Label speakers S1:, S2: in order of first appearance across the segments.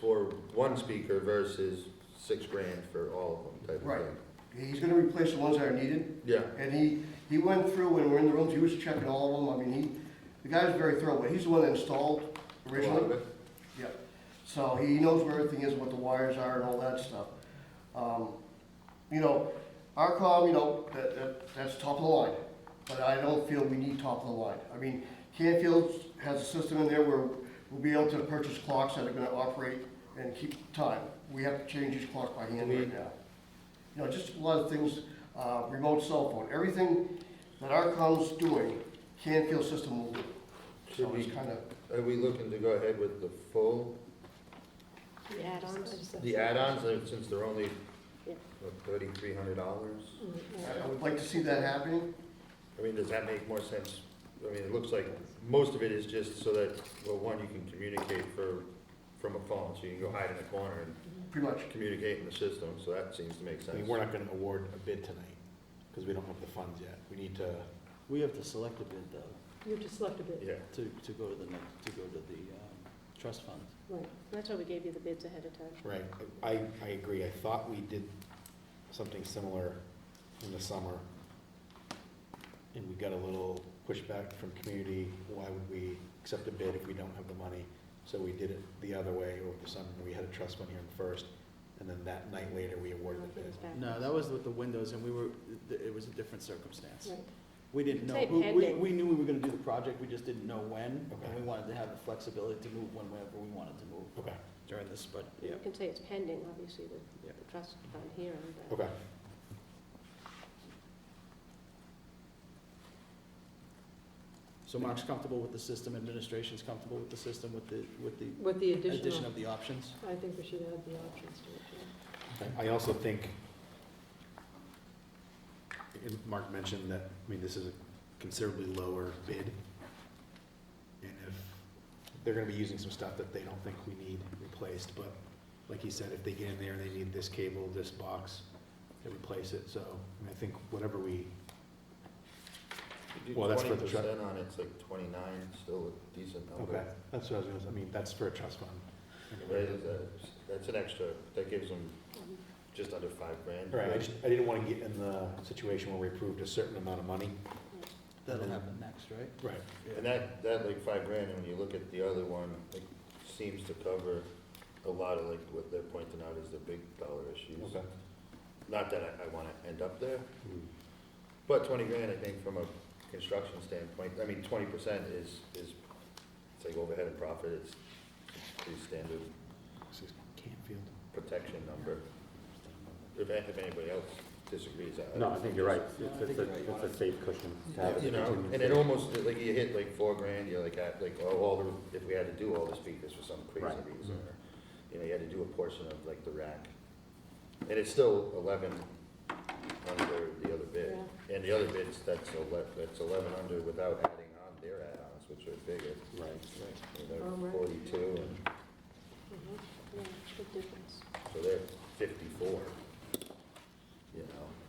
S1: for one speaker versus six grand for all of them type
S2: Right.
S1: of thing.
S2: He's gonna replace the ones that are needed,
S1: Yeah,
S2: and he, he went through when we were in the rooms, he was checking all of them, I mean, he, the guy was very thorough, but he's the one that installed
S1: a lot of
S2: originally.
S1: it.
S2: Yeah, so he knows where everything is, what the wires are and all that stuff. Um, You know, ARCOM, you know, that, that, that's top of the line, but I don't feel we need top of the line. I mean, Canfield has a system in there where we'll be able to purchase clocks that are gonna operate and keep time. We have to change each clock by hand right now. You know, just a lot of things, uh, remote cell phone, everything that ARCOM's doing, Canfield system will do.
S1: Should
S2: So
S1: we,
S2: it's kinda,
S1: are we looking to go ahead with the full,
S3: The add-ons.
S1: the add-ons, uh, since they're only
S3: Yeah.
S1: thirty-three hundred dollars?
S2: I I would like to see that happening.
S1: I mean, does that make more sense? I mean, it looks like most of it is just so that, well, one, you can communicate for, from a phone, so you can go hide in a corner and
S2: Pretty much.
S1: communicate in the system, so that seems to make
S4: I mean,
S1: sense.
S4: we're not gonna award a bid tonight, because we don't have the funds yet. We need to,
S5: We have to select a bid though,
S3: You just left a bit,
S1: Yeah,
S5: to, to go to the next, to go to the, um, trust fund.
S3: right. That's why we gave you the bids ahead of time.
S4: right, I, I agree. I thought we did something similar in the summer. And we got a little pushback from community, why would we accept a bid if we don't have the money? So we did it the other way over the summer. We had a trust fund hearing first, and then that night later, we awarded the bid.
S5: No, that was with the windows and we were, th- it was a different circumstance.
S3: Right.
S5: We didn't know,
S3: Say
S5: who- we,
S3: pending.
S5: we knew we were gonna do the project, we just didn't know when.
S4: Okay.
S5: And we wanted to have the flexibility to move whenever we wanted to move
S4: Okay,
S5: during this, but, yeah.
S3: You can say it's pending, obviously, the,
S5: Yeah.
S3: the trust fund hearing, but
S4: okay.
S5: So Mark's comfortable with the system, administration's comfortable with the system, with the, with the
S6: With the
S5: addition
S6: additional,
S5: of the options?
S6: I think we should add the options to it, yeah.
S4: I also think, and Mark mentioned that, I mean, this is a considerably lower bid. And if, they're gonna be using some stuff that they don't think we need replaced, but like you said, if they get in there and they need this cable, this box, they replace it, so, I mean, I think whatever we, Well, that's for the
S1: Twenty
S4: truck.
S1: percent on it's like twenty-nine, still a decent
S4: okay,
S1: number.
S4: that's what I was gonna, say. I mean, that's for a trust fund.
S1: Right, is that- That's an extra, that gives them
S6: Um,
S1: just under five grand.
S4: Right, I just, I didn't wanna get in the situation where we approved a certain amount of money.
S5: That'll happen next, right?
S4: Right.
S1: And that, that like five grand, and when you look at the other one, it seems to cover a lot of like what they're pointing out is the big dollar issues.
S4: Okay.
S1: Not that I, I wanna end up there, but twenty grand, I think, from a construction standpoint, I mean, twenty percent is, is, it's like overhead and profit, it's pretty standard
S4: This is Canfield.
S1: protection number. If, if anybody else disagrees, I.
S7: No, I think you're right.
S5: No, I
S7: It's,
S5: think
S7: it's a,
S5: you're right.
S7: it's a safe cushion to have. as a
S1: You know,
S7: contingency.
S1: and it almost, like, you hit like four grand, you're like, at, like, oh, all the, if we had to do all the speakers for some crazy
S7: Right.
S1: reason, or, you know, you had to do a portion of like the rack. And it's still eleven under the other bid, and the other bids, that's eleven, that's eleven under without adding on their add-ons, which are bigger,
S4: Right, right.
S1: you
S6: Oh,
S1: know,
S6: right.
S1: forty-two, and
S3: Mhm. yeah, big difference.
S1: so they're fifty-four, you know.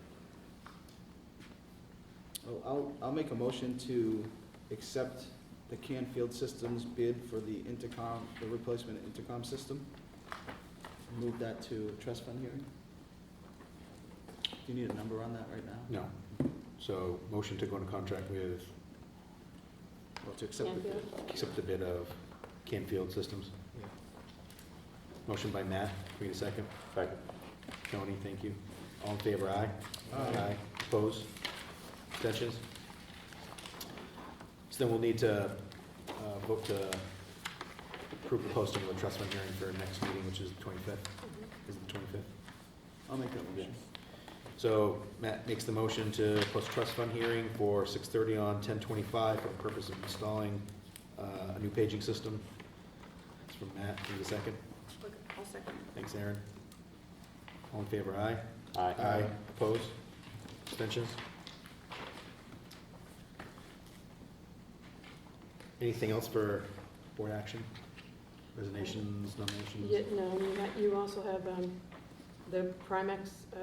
S5: Oh, I'll, I'll make a motion to accept the Canfield Systems bid for the intercom, the replacement intercom system. Move that to trust fund hearing. Do you need a number on that right now?
S4: No. So motion to go into contract with,
S5: Or to accept the bid?
S4: accept the bid of Canfield Systems.
S5: Yeah.
S4: Motion by Matt, we need a second.
S7: Second.
S4: Tony, thank you. All in favor, aye? Opposed? Abstentions? So then we'll need to uh, vote to approve the posting of the trust fund hearing for our next meeting, which is the 25th.
S6: Mm-hmm.
S4: Is it the 25th?
S5: I'll make that motion.
S4: So Matt makes the motion to post trust fund hearing for six thirty on ten twenty-five for the purpose of installing uh, a new paging system. It's from Matt, give a second.
S6: I'll second.
S4: Thanks, Aaron. All in favor, aye?
S7: Aye.
S4: Opposed? Abstentions? Anything else for board action? Resignations, nominations?
S6: Yeah, no, you ha- you also have um, the Primex uh,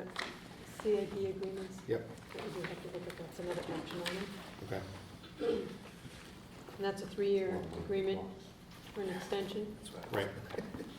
S6: CIP agreements.
S4: Yep.
S6: That we do have to look at, that's another action item.
S4: Okay.
S6: And that's a three-year agreement for an extension.
S1: That's why I was-
S4: Right.